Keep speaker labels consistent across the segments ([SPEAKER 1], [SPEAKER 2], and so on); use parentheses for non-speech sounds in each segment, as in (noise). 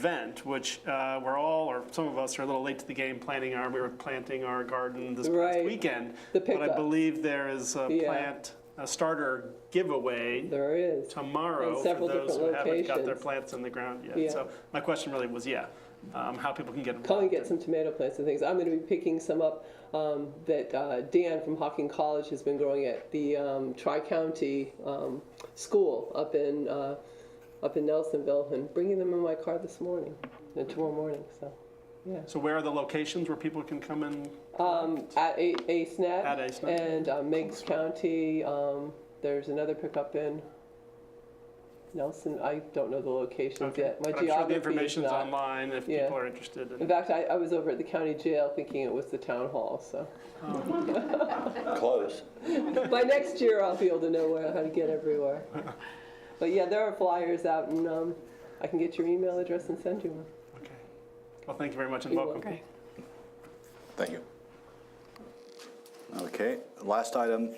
[SPEAKER 1] event, which uh, we're all, or some of us are a little late to the game planning our, we were planting our garden this past
[SPEAKER 2] Right.
[SPEAKER 1] weekend.
[SPEAKER 2] The
[SPEAKER 1] But I
[SPEAKER 2] pickup.
[SPEAKER 1] believe there is a
[SPEAKER 2] Yeah.
[SPEAKER 1] plant, a starter giveaway
[SPEAKER 2] There is.
[SPEAKER 1] tomorrow
[SPEAKER 2] In
[SPEAKER 1] for
[SPEAKER 2] several
[SPEAKER 1] those who
[SPEAKER 2] different
[SPEAKER 1] haven't got their
[SPEAKER 2] locations.
[SPEAKER 1] plants in the ground
[SPEAKER 2] Yeah.
[SPEAKER 1] yet. So my question really was, yeah, um, how people can get involved.
[SPEAKER 2] Come and get some tomato plants and things. I'm going to be picking some up um, that uh, Dan from Hawking College has been growing at the um, Tri-County um, School up in, uh, up in Nelsonville and bringing them in my car this morning, uh, tomorrow morning, so, yeah.
[SPEAKER 1] So where are the locations where people can come and,
[SPEAKER 2] Um, at A- ASNAP.
[SPEAKER 1] At ASNAP.
[SPEAKER 2] And uh, Meigs County, um, there's another pickup in Nelson, I don't know the locations
[SPEAKER 1] okay.
[SPEAKER 2] yet. My
[SPEAKER 1] But I'm sure the
[SPEAKER 2] geography is
[SPEAKER 1] information's
[SPEAKER 2] not-
[SPEAKER 1] online if
[SPEAKER 2] Yeah.
[SPEAKER 1] people are interested.
[SPEAKER 2] In
[SPEAKER 1] in-
[SPEAKER 2] fact, I, I was over at the county jail thinking it was the town hall, so.
[SPEAKER 3] Close.
[SPEAKER 2] By next year, I'll be able to know where, how to get everywhere. But yeah, there are flyers out and, um, I can get your email address and send you one.
[SPEAKER 1] Okay. Well, thank you very much and
[SPEAKER 2] You're
[SPEAKER 1] welcome.
[SPEAKER 2] welcome.
[SPEAKER 3] Thank you. Okay, last item,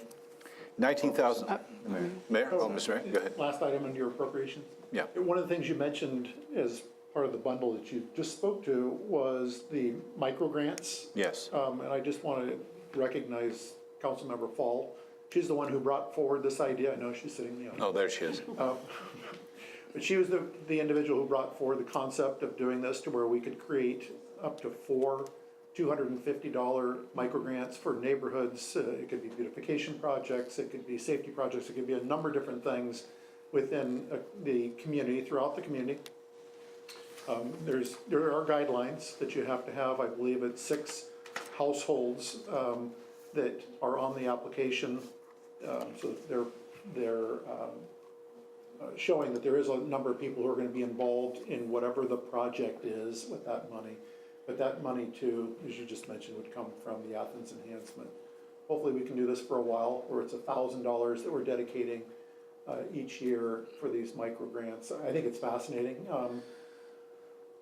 [SPEAKER 3] 19,000. Mayor- Mayor, oh, Mr. Mayor, go ahead.
[SPEAKER 4] Last item under your appropriations.
[SPEAKER 3] Yeah.
[SPEAKER 4] One of the things you mentioned as part of the bundle that you just spoke to was the micro grants.
[SPEAKER 3] Yes.
[SPEAKER 4] Um, and I just want to recognize Councilmember Fall. She's the one who brought forward this idea. I know she's sitting in the audience.
[SPEAKER 3] Oh, there she is.
[SPEAKER 4] But she was the, the individual who brought forward the concept of doing this to where we could create up to four two hundred and fifty dollar micro grants for neighborhoods. Uh, it could be beautification projects, it could be safety projects, it could be a number of different things within uh, the community, throughout the community. Um, there's, there are guidelines that you have to have, I believe it's six households, um, that are on the application. Um, so they're, they're, um, uh, showing that there is a number of people who are gonna be involved in whatever the project is with that money. But that money too, as you just mentioned, would come from the Athens enhancement. Hopefully, we can do this for a while, where it's a thousand dollars that we're dedicating uh, each year for these micro grants. I think it's fascinating. Um,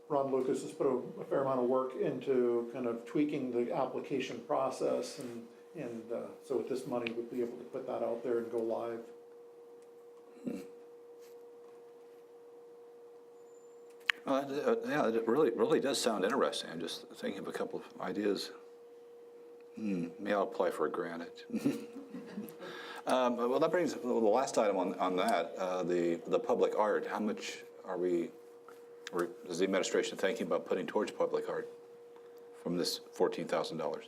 [SPEAKER 4] Ron Lucas has put a, a fair amount of work into kind of tweaking the application process and, and uh, so with this money, we'd be able to put that out there and go live.
[SPEAKER 3] Uh, uh, Yeah, it really, really does sound interesting. I'm just thinking of a couple of ideas. Hmm, Maybe I'll apply for a grant. (laughs) Um, Well, that brings, well, the last item on, on that, uh, the, the public art. How much are we, or is the administration thinking about putting towards public art from this $14,000?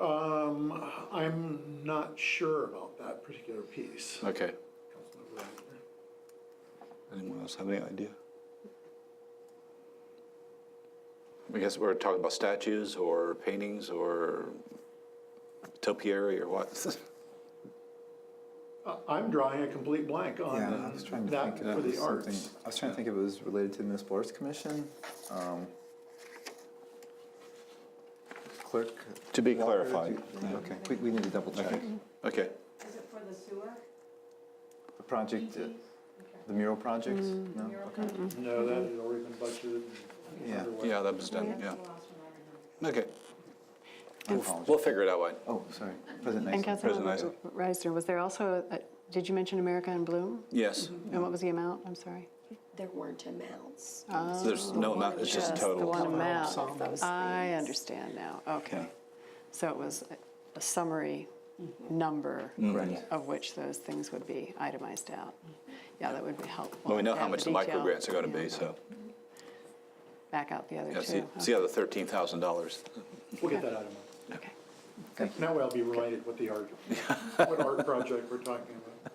[SPEAKER 4] Um, I'm not sure about that particular piece.
[SPEAKER 3] Okay. Anyone else have any idea? I guess we're talking about statues or paintings or topiary or what?
[SPEAKER 4] Uh, I'm drawing a complete blank
[SPEAKER 5] Yeah, I
[SPEAKER 4] on
[SPEAKER 5] was trying to
[SPEAKER 4] that
[SPEAKER 5] think
[SPEAKER 4] for
[SPEAKER 5] if it
[SPEAKER 4] the
[SPEAKER 5] was something,
[SPEAKER 4] arts.
[SPEAKER 5] I was trying to think if it was related to the municipal arts commission. Um, Clerk.
[SPEAKER 3] (laughs) To be
[SPEAKER 5] Walker,
[SPEAKER 3] clarified.
[SPEAKER 5] do- Okay, we, we need to double check.
[SPEAKER 3] Okay,
[SPEAKER 6] Is it for the sewer?
[SPEAKER 5] The project, uh, the mural projects?
[SPEAKER 7] Mm.
[SPEAKER 5] No, okay.
[SPEAKER 4] No, that had already been budgeted and
[SPEAKER 5] Yeah.
[SPEAKER 4] underway.
[SPEAKER 3] yeah, that was done, yeah.
[SPEAKER 6] That's the last one I remember.
[SPEAKER 3] Okay,
[SPEAKER 5] My apologies.
[SPEAKER 3] we'll figure it out, Wayne.
[SPEAKER 5] Oh, sorry, President
[SPEAKER 7] And
[SPEAKER 5] Nysel.
[SPEAKER 3] President
[SPEAKER 7] Councilmember Reisner, was there also, a- did you mention America in Bloom?
[SPEAKER 3] Yes,
[SPEAKER 7] And what was the amount? I'm sorry.
[SPEAKER 8] There weren't amounts.
[SPEAKER 3] there's no amount, it's just
[SPEAKER 7] Uh, The
[SPEAKER 3] total.
[SPEAKER 7] one
[SPEAKER 8] All of
[SPEAKER 7] amount.
[SPEAKER 8] those
[SPEAKER 7] I
[SPEAKER 8] things.
[SPEAKER 7] understand now, okay. So it was a- a summary Mm-hmm. number
[SPEAKER 3] Mm.
[SPEAKER 5] Correct.
[SPEAKER 7] of which those things would be itemized out. Yeah, that would be helpful.
[SPEAKER 3] Well, we know
[SPEAKER 7] to
[SPEAKER 3] how
[SPEAKER 7] have
[SPEAKER 3] much the micro
[SPEAKER 7] detail,
[SPEAKER 3] grants are gonna
[SPEAKER 7] yeah. uh-huh.
[SPEAKER 3] be, so,
[SPEAKER 7] Back out the other
[SPEAKER 3] yeah, see,
[SPEAKER 7] two. Oh,
[SPEAKER 3] see how the $13,000.
[SPEAKER 4] We'll get that out of
[SPEAKER 7] Okay.
[SPEAKER 4] Now I'll be related with the art, what art project we're talking about.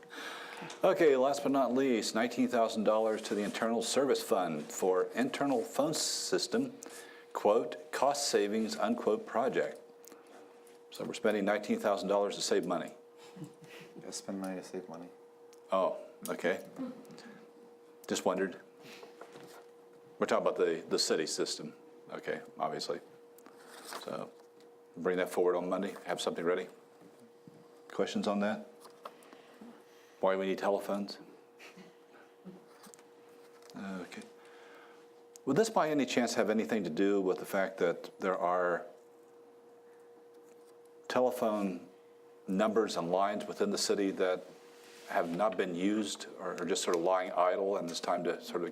[SPEAKER 3] Okay, last but not least, $19,000 to the Internal Service Fund for internal phone system, quote, cost savings, unquote, project. So we're spending $19,000 to save money.
[SPEAKER 5] Gotta Spend money to save money.
[SPEAKER 3] Oh, okay. Just wondered. We're talking about the, the city system, okay, obviously. So bring that forward on Monday, have something ready. Questions on that? Why we need telephones? Okay. Would this by any chance have anything to do with the fact that there are telephone numbers and lines within the city that have not been used or are just sort of lying idle and it's time to sort of